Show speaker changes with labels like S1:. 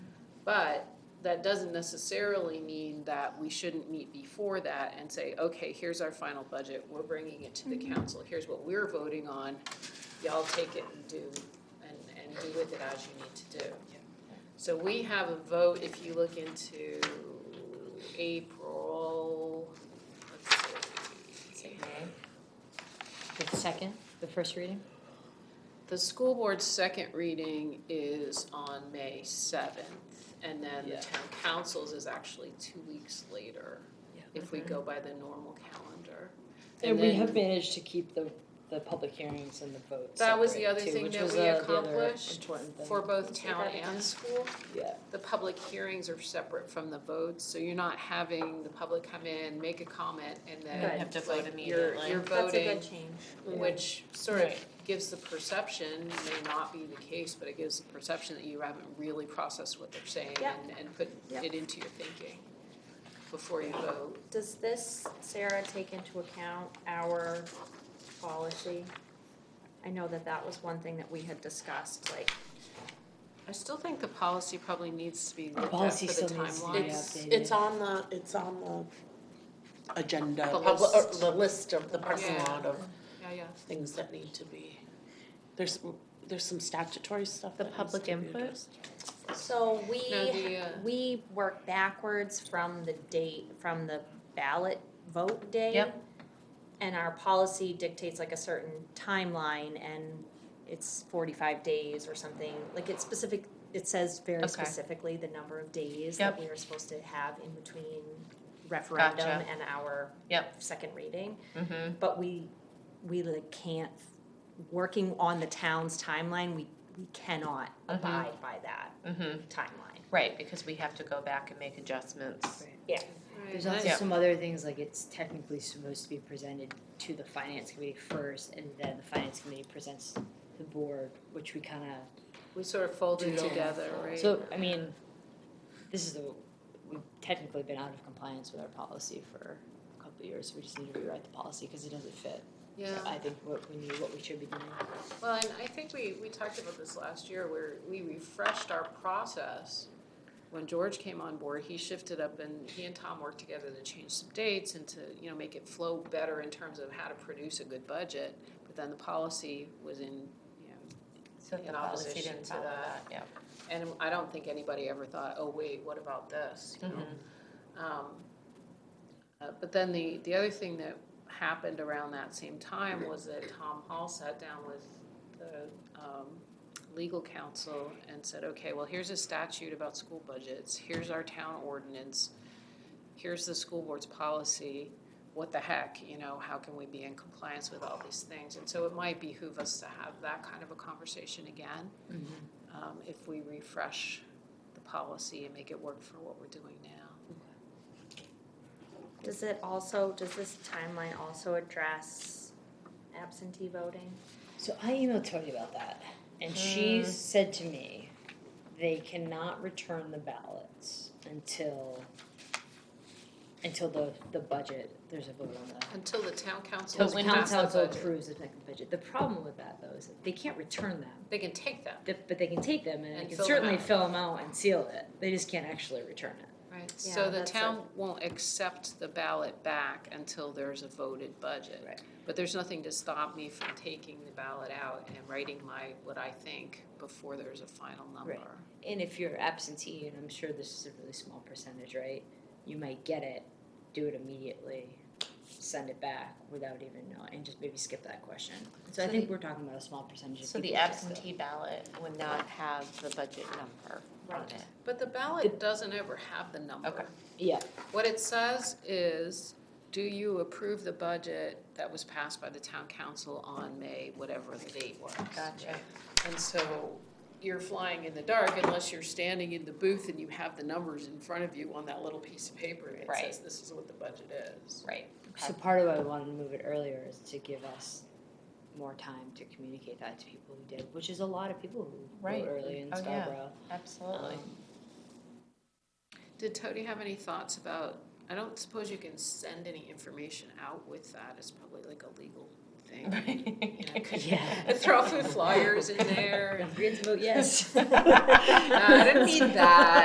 S1: But that doesn't necessarily mean that we shouldn't meet before that and say, okay, here's our final budget, we're bringing it to the council, here's what we're voting on. Y'all take it and do, and, and do with it as you need to do. So we have a vote, if you look into April, let's see.
S2: The second, the first reading?
S1: The school board's second reading is on May seventh, and then the
S2: Yeah.
S1: town council's is actually two weeks later, if we go by the normal calendar.
S2: And we
S1: then
S2: have managed to keep the, the public hearings and the votes
S1: That was the
S2: separate,
S1: other
S2: too,
S1: thing
S2: which
S1: that
S2: was,
S1: we
S2: uh, the other
S1: accomplished
S2: important thing.
S1: For both
S3: Say that
S1: town
S3: again.
S1: and school,
S2: Yeah,
S1: the public hearings are separate from the votes, so you're not having the public come in, make a comment, and then
S3: Right.
S4: Have to vote
S1: like, you're,
S4: immediately.
S1: you're
S3: That's a
S1: voting,
S3: good change.
S1: which sort of
S4: Right.
S1: gives the perception, may not be the case, but it gives the perception that you haven't really processed what they're saying
S3: Yeah.
S1: and, and put
S3: Yeah.
S1: it into your thinking before you vote.
S3: Does this, Sarah, take into account our policy? I know that that was one thing that we had discussed, like,
S1: I still think the policy probably needs to be looked at
S2: policy
S1: for the
S2: still needs to be
S1: timelines.
S2: updated.
S4: It's on the, it's on the agenda,
S1: The
S4: of-
S1: list.
S4: or the list of the parking
S1: Yeah.
S4: lot of
S1: Yeah, yeah.
S4: things that need to be. There's, there's some statutory stuff
S5: The
S4: that needs to
S5: public
S4: be
S5: input?
S4: addressed.
S3: so
S1: No,
S3: we,
S1: the, uh,
S3: we work backwards from the date, from the ballot vote day.
S5: Yep.
S3: And our policy dictates like a certain timeline and it's forty-five days or something, like it's specific, it says very
S5: Okay.
S3: specifically the number of days
S5: Yep.
S3: that we are supposed to have in between referendum
S5: Gotcha.
S3: and our
S5: Yep.
S3: second reading.
S5: Mm-hmm.
S3: But we, we like can't, working on the town's timeline, we, we cannot
S5: Mhm.
S3: abide by that
S5: Mm-hmm.
S3: timeline.
S5: Right, because we have to go back and make adjustments.
S2: there's
S1: Right.
S2: also
S5: Yeah.
S2: some other things, like it's technically supposed to be presented to the finance committee first, and then the finance committee presents to the board, which we kinda
S1: We sort of folded
S2: Yeah.
S1: together, right?
S2: So, I mean, this is the, we've technically been out of compliance with our policy for a couple of years, we just need to rewrite the policy, cause it doesn't fit.
S1: Yeah.
S2: I think what we need, what we should be doing.
S1: Well, and I think we, we talked about this last year, where we refreshed our process. When George came on board, he shifted up and he and Tom worked together to change some dates and to, you know, make it flow better in terms of how to produce a good budget. But then the policy was in, you know,
S5: So
S1: In opposition to that.
S5: yeah.
S1: and I don't think anybody ever thought, oh, wait, what about this, you know? Um, uh, But then the, the other thing that happened around that same time was that Tom Hall sat down with the um, legal counsel and said, okay, well, here's a statute about school budgets, here's our town ordinance, here's the school board's policy, what the heck, you know, how can we be in compliance with all these things? And so it might behoove us to have that kind of a conversation again,
S2: Mm-hmm.
S1: um, if we refresh the policy and make it work for what we're doing now.
S3: Does it also, does this timeline also address absentee voting?
S2: So I emailed Tony about that, and she
S5: Hmm.
S2: said to me, they cannot return the ballots until, until the, the budget, there's a vote on that.
S1: Until the town council
S2: Until
S1: has
S2: the
S1: passed the
S2: council
S1: budget,
S2: approves the second budget, the problem with that though is that they can't return them.
S1: they can take that,
S2: that, but they can take them and,
S1: And
S2: they
S1: fill
S2: can
S1: them
S2: certainly
S1: out.
S2: fill them out and seal it. They just can't actually return it.
S1: right?
S3: Yeah,
S1: So the
S3: that's
S1: town won't accept the ballot back until there's a voted budget.
S2: Right.
S1: But there's nothing to stop me from taking the ballot out and writing my, what I think, before there's a final number.
S2: And if you're absentee, and I'm sure this is a really small percentage, right? You might get it, do it immediately, send it back without even knowing, and just maybe skip that question. So, I
S5: So
S2: think
S5: the-
S2: we're talking about a small percentage. Of
S5: So the
S2: people who just uh, go.
S5: absentee ballot would not have the budget number on
S3: Right.
S5: it.
S1: But the ballot doesn't ever have the number.
S5: Okay.
S2: Yeah,
S1: What it says is, do you approve the budget that was passed by the town council on May, whatever the date was?
S5: Gotcha.
S1: And so you're flying in the dark unless you're standing in the booth and you have the numbers in front of you on that little piece of paper that says
S5: Right.
S1: this is what the budget is.
S5: Right.
S2: so part of why we wanted to move it earlier is to give us more time to communicate that to people who did, which is a lot of people who
S5: Right.
S2: vote early in
S5: Oh, yeah.
S2: Scarborough.
S5: Absolutely.
S2: Um,
S1: Did Tody have any thoughts about, I don't suppose you can send any information out with that, it's probably like a legal
S5: Um,
S1: thing. You know, could-
S2: Yeah.
S1: Throw some flyers in there,
S2: Don't forget to vote yes.
S5: Uh,
S1: No, I didn't mean that.